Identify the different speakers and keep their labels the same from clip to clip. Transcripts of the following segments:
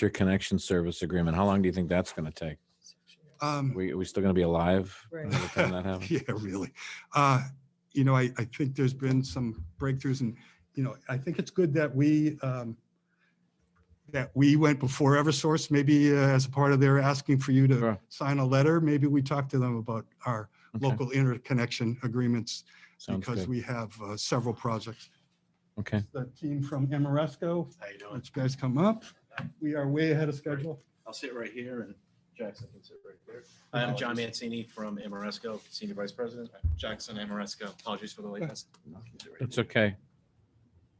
Speaker 1: interconnection service agreement. How long do you think that's going to take?
Speaker 2: Um,
Speaker 1: We, are we still going to be alive? by
Speaker 3: Right.
Speaker 1: the time that happens?
Speaker 2: Yeah, really. Uh, You know, I, I think there's been some breakthroughs and, you know, I think it's good that we, um, that we went before Eversource, maybe uh, as a part of their asking for you to
Speaker 1: Sure.
Speaker 2: sign a letter. Maybe we talk to them about our
Speaker 1: Okay,
Speaker 2: local interconnection agreements
Speaker 1: Sounds
Speaker 2: because
Speaker 1: good.
Speaker 2: we have uh, several projects.
Speaker 1: Okay,
Speaker 2: The team from Amoresco,
Speaker 4: How you doing?
Speaker 2: which guys come up. We are way ahead of schedule.
Speaker 4: I'll sit right here and Jackson can sit right there. Hi, I'm John Mancini from Amoresco, Senior Vice President. Jackson Amoresco. Apologies for the lateness.
Speaker 1: it's okay.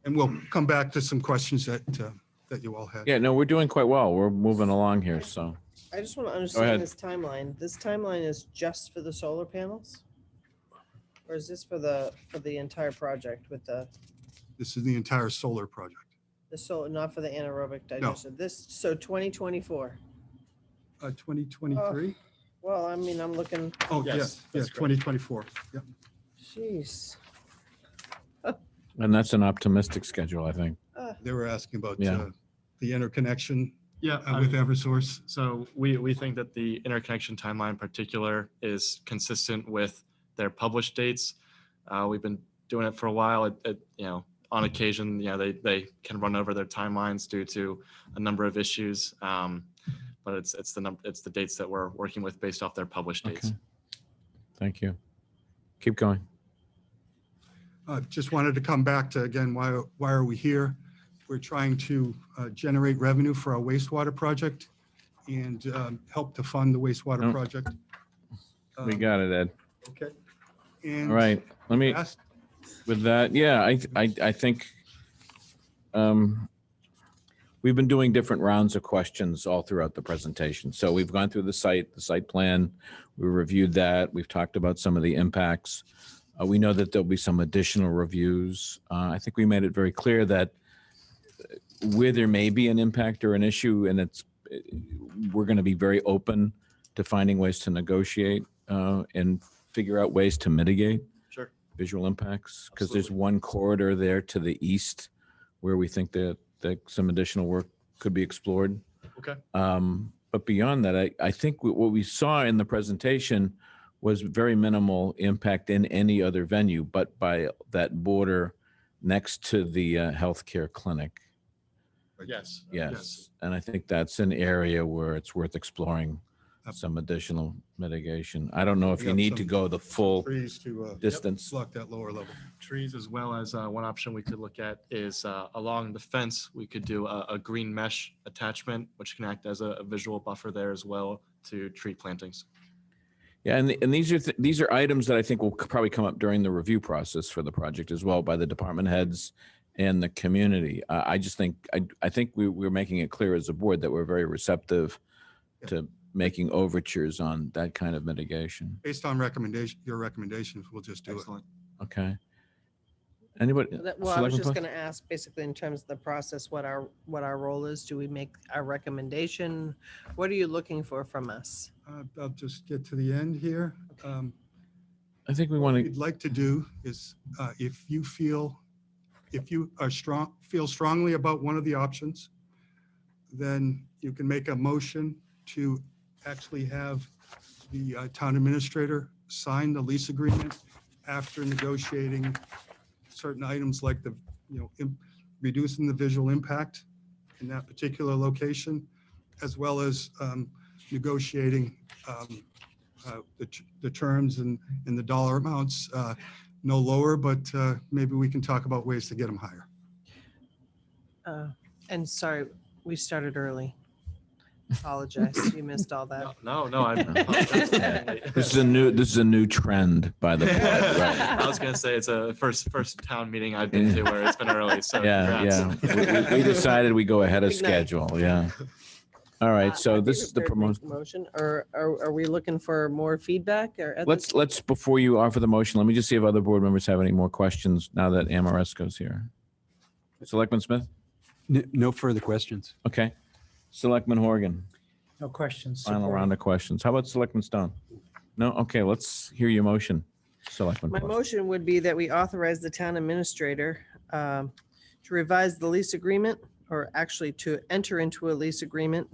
Speaker 2: And we'll come back to some questions that, uh, that you all had.
Speaker 1: Yeah, no, we're doing quite well. We're moving along here, so.
Speaker 3: I just want to
Speaker 1: ahead.
Speaker 3: understand this timeline. This timeline is just for the solar panels? Or is this for the, for the entire project with the,
Speaker 2: This is the entire solar project.
Speaker 3: the solar, not for the anaerobic digestion? This, so 2024.
Speaker 2: Uh, 2023?
Speaker 3: Well, I mean, I'm looking,
Speaker 2: Oh,
Speaker 4: Yes,
Speaker 2: Uh, yes, yes,
Speaker 4: that's correct.
Speaker 2: 2024. Yep.
Speaker 3: jeez.
Speaker 1: And that's an optimistic schedule, I think.
Speaker 2: They were asking about
Speaker 1: Yeah.
Speaker 2: uh, the interconnection
Speaker 5: Yeah,
Speaker 2: uh,
Speaker 5: I
Speaker 2: with
Speaker 5: mean,
Speaker 2: Eversource.
Speaker 5: so we, we think that the interconnection timeline in particular is consistent with their published dates. Uh, we've been doing it for a while. It, it, you know, on occasion, you know, they, they can run over their timelines due to a number of issues. Um, but it's, it's the number, it's the dates that we're working with based off their published dates.
Speaker 1: Okay. Thank you. Keep going.
Speaker 2: Uh, Just wanted to come back to, again, why, why are we here? We're trying to uh, generate revenue for our wastewater project and um, help to fund the wastewater
Speaker 1: Oh.
Speaker 2: project.
Speaker 1: We
Speaker 2: Um,
Speaker 1: got it, Ed.
Speaker 2: Okay.
Speaker 1: All right, let me,
Speaker 2: And ask-
Speaker 1: with that, yeah, I, I, I think um, we've been doing different rounds of questions all throughout the presentation. So we've gone through the site, the site plan, we reviewed that, we've talked about some of the impacts. Uh, we know that there'll be some additional reviews. Uh, I think we made it very clear that uh, where there may be an impact or an issue, and it's, uh, we're going to be very open to finding ways to negotiate uh, and figure out ways to mitigate
Speaker 4: Sure.
Speaker 1: visual impacts? Because there's
Speaker 4: Absolutely.
Speaker 1: one corridor there to the east where we think that, that some additional work could be explored.
Speaker 5: Okay.
Speaker 1: Um, But beyond that, I, I think what what we saw in the presentation was very minimal impact in any other venue, but by that border next to the uh, healthcare clinic.
Speaker 5: Yes.
Speaker 1: Yes. And I think that's an area where it's worth exploring
Speaker 2: Ab-
Speaker 1: some additional mitigation. I don't know if
Speaker 2: We
Speaker 1: you
Speaker 2: got
Speaker 1: need to
Speaker 2: some
Speaker 1: go the full
Speaker 2: Trees to uh,
Speaker 1: distance.
Speaker 2: block that lower level.
Speaker 5: trees as well as uh, one option we could look at is uh, along the fence, we could do a, a green mesh attachment, which can act as a, a visual buffer there as well to tree plantings.
Speaker 1: Yeah, and, and these are, th- these are items that I think will c- probably come up during the review process for the project as well by the department heads and the community. Uh, I just think, I, I think we, we're making it clear as a board that we're very receptive
Speaker 2: Yeah.
Speaker 1: to making overtures on that kind of mitigation.
Speaker 2: Based on recommendation, your recommendations, we'll just do it.
Speaker 5: Excellent.
Speaker 1: Okay. Anybody?
Speaker 3: That- Well, I was
Speaker 1: Selectman
Speaker 3: just
Speaker 1: Plush?
Speaker 3: going to ask, basically, in terms of the process, what our, what our role is. Do we make our recommendation? What are you looking for from us?
Speaker 2: Uh, I'll just get to the end here. Um,
Speaker 1: I think we want to,
Speaker 2: we'd like to do is, uh, if you feel, if you are strong, feel strongly about one of the options, then you can make a motion to actually have the uh, town administrator sign the lease agreement after negotiating certain items like the, you know, im- reducing the visual impact in that particular location, as well as um, negotiating um, uh, the t- the terms and in the dollar amounts, uh, no lower, but uh, maybe we can talk about ways to get them higher.
Speaker 3: Uh, And sorry, we started early. Apologize, you missed all that.
Speaker 5: No, no, no, I apologize for being late.
Speaker 1: this is a new, this is a new trend by the board. right?
Speaker 5: I was gonna say it's a first first town meeting I've been to where it's been early. So
Speaker 1: Yeah,
Speaker 5: congrats.
Speaker 1: yeah. We- We we decided we go ahead of
Speaker 3: Big night.
Speaker 1: schedule, yeah. All
Speaker 3: Uh,
Speaker 1: right, so
Speaker 3: are they
Speaker 1: this is the
Speaker 3: prepared to make
Speaker 1: promotion.
Speaker 3: a Motion, or are, are we looking for more feedback or? at
Speaker 1: Let's,
Speaker 3: this-
Speaker 1: let's, before you offer the motion, let me just see if other board members have any more questions now that Amoresco's here. Selectman Smith?
Speaker 6: N- No further questions.
Speaker 1: Okay. Selectman Horgan,
Speaker 7: No questions.
Speaker 1: final
Speaker 7: supported.
Speaker 1: round of questions. How about Selectman Stone? No? Okay, let's hear your motion, Selectman.
Speaker 3: My
Speaker 1: Plush.
Speaker 3: motion would be that we authorize the town administrator um, to revise the lease agreement or actually to enter into a lease agreement